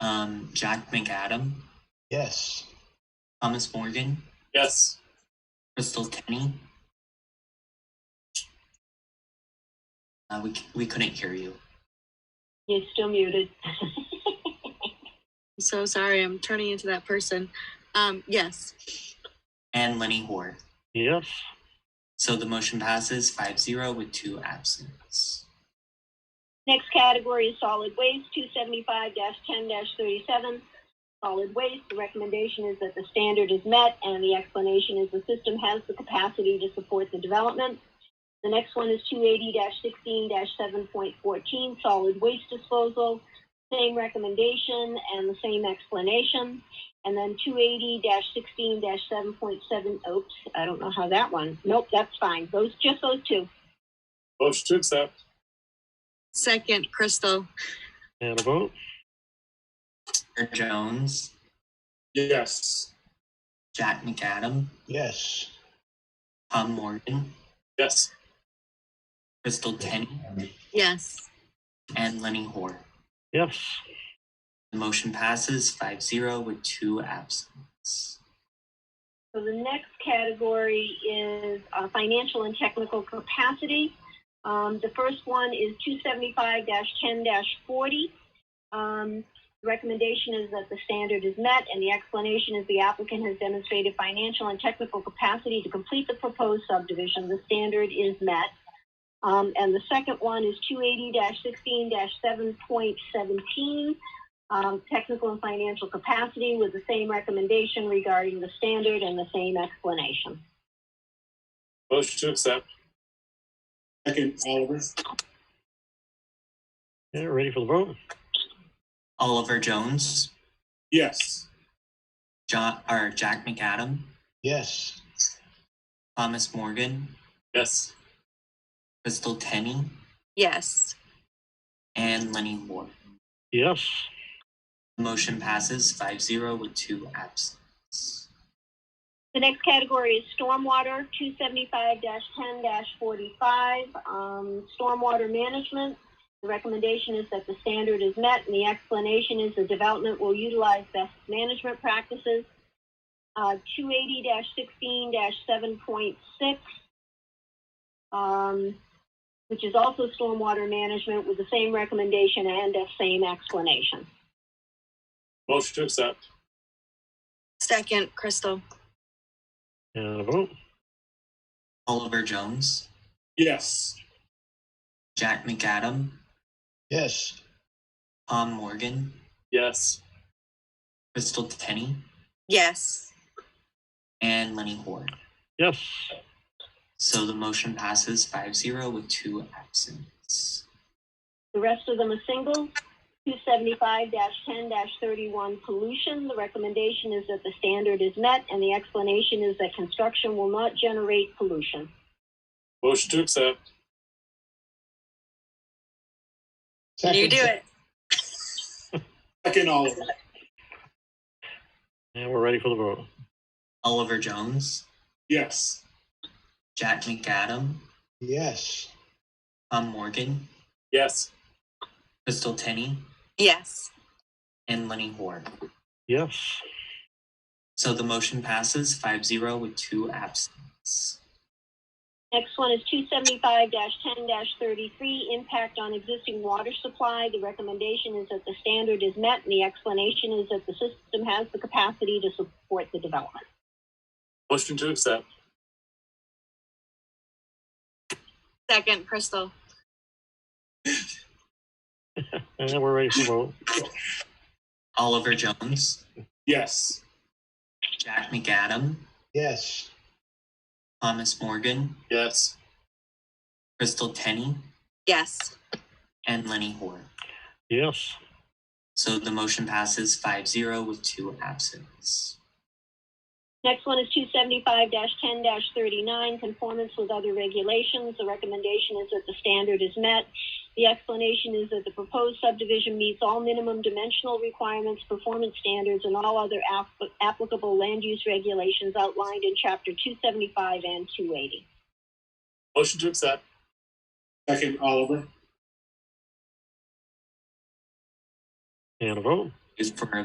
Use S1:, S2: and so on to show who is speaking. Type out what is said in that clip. S1: Um, Jack McAdam,
S2: Yes.
S1: Thomas Morgan,
S3: Yes.
S1: Crystal Tenney. Uh, we, c- we couldn't hear you.
S4: You're still muted.
S5: I'm so sorry. I'm turning into that person. Um, yes.
S1: And Lenny Hoare.
S3: Yes.
S1: So the motion passes 5 0 with two absence.
S4: Next category is solid waste, two seventy-five ten thirty-seven. Solid waste, the recommendation is that the standard is met and the explanation is the system has the capacity to support the development. The next one is two eighty sixteen seven point fourteen, solid waste disposal. Same recommendation and the same explanation. And then two eighty sixteen seven point seven, oops, I don't know how that one, nope, that's fine, those, just those two.
S3: Motion to accept.
S5: Second, Crystal.
S3: And a vote?
S1: Claire Jones,
S3: Yes.
S1: Jack McAdam,
S2: Yes.
S1: Tom Morgan,
S3: Yes.
S1: Crystal Tenney,
S5: Yes.
S1: and Lenny Hoare.
S3: Yes.
S1: The motion passes 5 0 with two absence.
S4: So the next category is uh, financial and technical capacity. Um, The first one is 275-10-40. Um, The Recommendation is that the standard is met, and the explanation is the applicant has demonstrated financial and technical capacity to complete the proposed subdivision. The standard is met. Um, And the second one is 280-16-7.17 um, technical and financial capacity with the same recommendation regarding the standard and the same explanation.
S3: Motion to accept. Second, Oliver.
S6: Yeah, ready for the vote?
S1: Oliver Jones,
S3: Yes.
S1: John, or Jack McAdam,
S2: Yes.
S1: Thomas Morgan,
S3: Yes.
S1: Crystal Tenney,
S5: Yes.
S1: and Lenny Hoare.
S6: Yes.
S1: The motion passes 5 0 with two absence.
S4: The next category is stormwater, two seventy-five ten forty-five, um, stormwater management. The recommendation is that the standard is met and the explanation is the development will utilize best management practices. Uh, two eighty sixteen seven point six, um, which is also stormwater management with the same recommendation and the same explanation.
S3: Motion to accept.
S5: Second, Crystal.
S6: And a vote?
S1: Oliver Jones,
S3: Yes.
S1: Jack McAdam,
S2: Yes.
S1: Tom Morgan,
S3: Yes.
S1: Crystal Tenney,
S5: Yes.
S1: and Lenny Hoare.
S6: Yes.
S1: So the motion passes 5 0 with two absence.
S4: The rest of them are single. Two seventy-five ten thirty-one pollution, the recommendation is that the standard is met and the explanation is that construction will not generate pollution.
S3: Motion to accept.
S5: You do it.
S3: Second, Oliver.
S6: And we're ready for the vote?
S1: Oliver Jones,
S3: Yes.
S1: Jack McAdam,
S2: Yes.
S1: Tom Morgan,
S3: Yes.
S1: Crystal Tenney,
S5: Yes.
S1: and Lenny Hoare.
S6: Yes.
S1: So the motion passes 5 0 with two absence.
S4: Next one is two seventy-five ten thirty-three, impact on existing water supply, the recommendation is that the standard is met and the explanation is that the system has the capacity to support the development.
S3: Motion to accept.
S5: Second, Crystal.
S6: And we're ready for the vote?
S1: Oliver Jones,
S3: Yes.
S1: Jack McAdam,
S2: Yes.
S1: Thomas Morgan,
S3: Yes.
S1: Crystal Tenney,
S5: Yes.
S1: and Lenny Hoare.
S6: Yes.
S1: So the motion passes 5 0 with two absence.
S4: Next one is two seventy-five ten thirty-nine, conformance with other regulations. The recommendation is that the standard is met. The explanation is that the proposed subdivision meets all minimum dimensional requirements, performance standards, and all other app- applicable land use regulations outlined in chapter two seventy-five and two eighty.
S3: Motion to accept. Second, Oliver.
S6: And a vote?
S1: Is for